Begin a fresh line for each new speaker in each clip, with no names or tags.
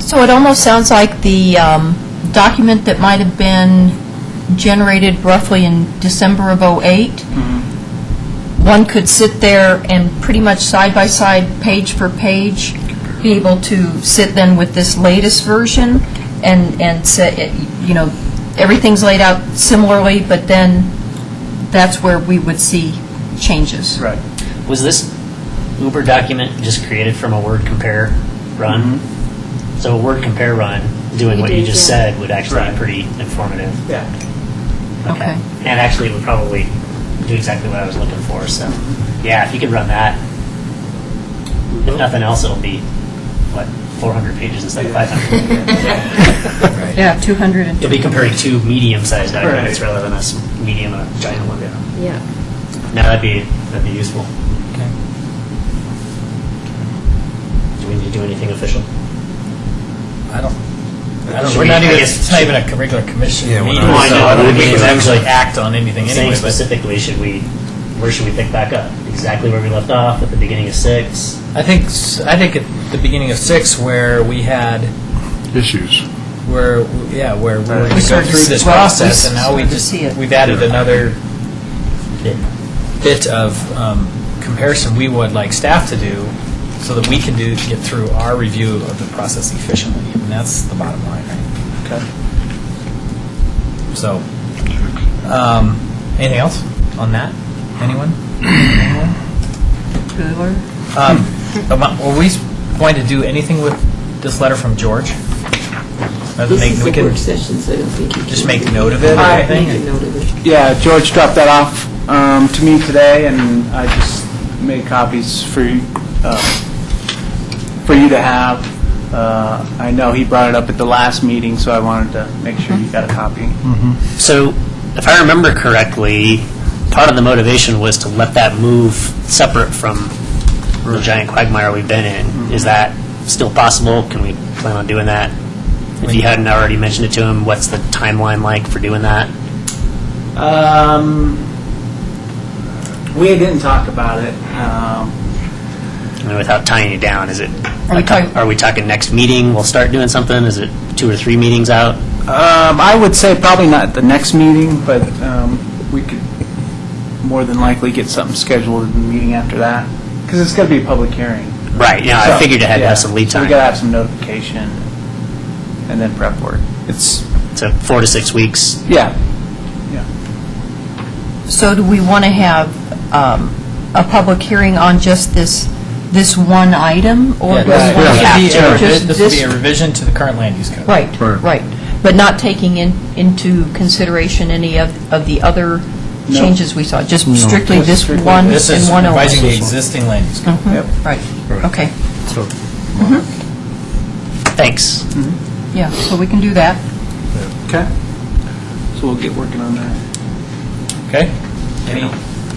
So it almost sounds like the um, document that might have been generated roughly in December of '08, one could sit there and pretty much side by side, page for page, be able to sit then with this latest version and, and say, you know, everything's laid out similarly, but then that's where we would see changes.
Right.
Was this Uber document just created from a word compare run? So a word compare run, doing
You
what you
did,
just
yeah.
said, would actually be
Mm-hmm. Right.
pretty informative.
Yeah.
Okay.
And actually, it would probably do exactly what I was looking for, so,
Mm-hmm.
yeah, if you could run that, if nothing else, it'll be, what, 400 pages instead of 500?
Yeah, 200 and
You'll be comparing two medium-sized documents
Right.
rather than a s- medium and a giant one.
Yeah.
Yeah.
No, that'd be, that'd be useful.
Okay.
Do we need to do anything official?
I don't, I don't,
Should
we're
we-
not
I
even,
guess-
it's not even a regular commission
Yeah, we're
meeting, so
not-
No, I know,
I
I
don't
don't
think we
think
can
so.
actually act on anything
Saying
anyway, but
specifically, should we, where should we pick back up? Exactly where we left off, at the beginning of six?
I think, s- I think at the beginning of six where we had,
issues.
where, yeah, where we were
We
going to go
started to
through
see-
this
well, we
process and now we
started to
just,
see it.
we've added another
bit?
bit of um, comparison we would like staff to do so that we can do, get through our review of the process efficiently. And that's the bottom line, right?
Okay.
So, um, anything else on that? Anyone? Anyone?
Cooler.
Um, am I- Were we going to do anything with this letter from George? Other than
This
make-
is
we
a
can
work session, so I don't think you can.
Just make note of it or
I
anything?
Make a note of it.
Yeah, George dropped that off um, to me today, and I just made copies for you, uh, for you to have. Uh, I know he brought it up at the last meeting, so I wanted to make sure you got a copy.
So, if I remember correctly, part of the motivation was to let that move separate from the giant quagmire we've been in. Is that still possible? Can we plan on doing that? If you hadn't already mentioned it to him, what's the timeline like for doing that?
Um, we didn't talk about it. Um,
I mean, without tying it down, is it?
Are we talking-
Are we talking next meeting, we'll start doing something? Is it two or three meetings out?
Um, I would say probably not at the next meeting, but um, we could more than likely get something scheduled in the meeting after that, because it's going to be a public hearing.
Right, yeah, I
So,
figured it had to
yeah.
have some lead
So we
time.
got to have some notification and then prep work. It's,
So four to six weeks.
yeah,
So do we want to have um, a public hearing on just this, this one item? or
Yeah,
do we
this-
want to
this would be a
have
revi-
just
This would be
this-
a revision to the current land use code.
Right, right. But not taking in into consideration any of of the other
No.
changes we saw? Just strictly
Just
this
strictly
one and
This is
one only?
revising the existing land use code.
yep.
Right, okay,
Thanks.
yeah, so we can do that.
Okay. So we'll get working on that.
Okay? Any-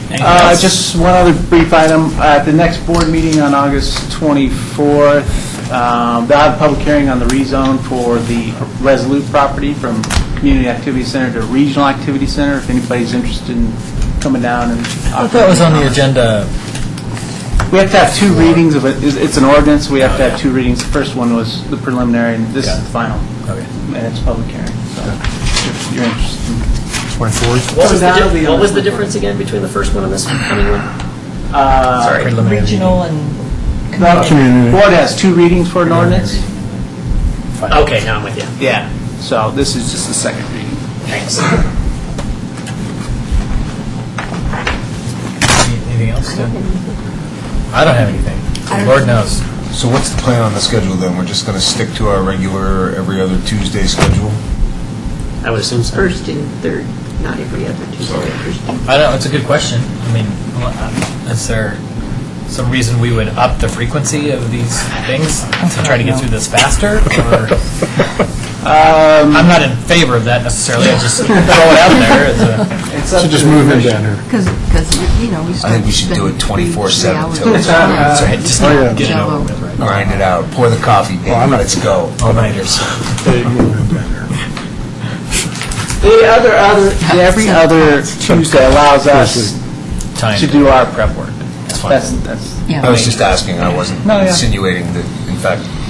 Anything
Uh,
else?
Just one other brief item. Uh, At the next board meeting on August 24th, um, they'll have a public hearing on the rezone for the Resolute property from Community Activity Center to Regional Activity Center, if anybody's interested in coming down and...
I thought that was on the agenda.
We have to have two readings of it. It's- It's an ordinance, we have to have two readings. The first one was the preliminary, and this is the final,
Okay.
and it's public hearing, so if you're interested.
What was the,
that'll
di-
be
what
on
was the
the-
difference again between the first one and this coming one?
Uh,
Sorry.
Preliminary meeting.
Regional and,
The board has two readings for an ordinance?
Okay, now I'm with you.
Yeah. So this is just the second reading.
Thanks.
Any- Anything else? Dan? I don't have anything. Lord knows.
So what's the plan on the schedule then? We're just going to stick to our regular every other Tuesday schedule?
I would assume so.
First and third, not every other Tuesday, first and
I don't know, it's a good question. I mean, well, is there some reason we would up the frequency of these things to try to get through this faster? or- I'm not in favor of that necessarily, I just throw it out there as a,
So just move it down here.
Because, because, you know, we
I think we should do it 24/7 till it's
that's right, just
Oh, yeah.
get it over with, right?
grind it out, pour the coffee,
I'm
baby,
not- Oh.
let's go.
All-nighters.
The other, other, the every other Tuesday allows us
Time
to do our
prep work. That's fine.
That's, that's,
yeah.
I was just asking, I wasn't
No, yeah.
insinuating that, in fact,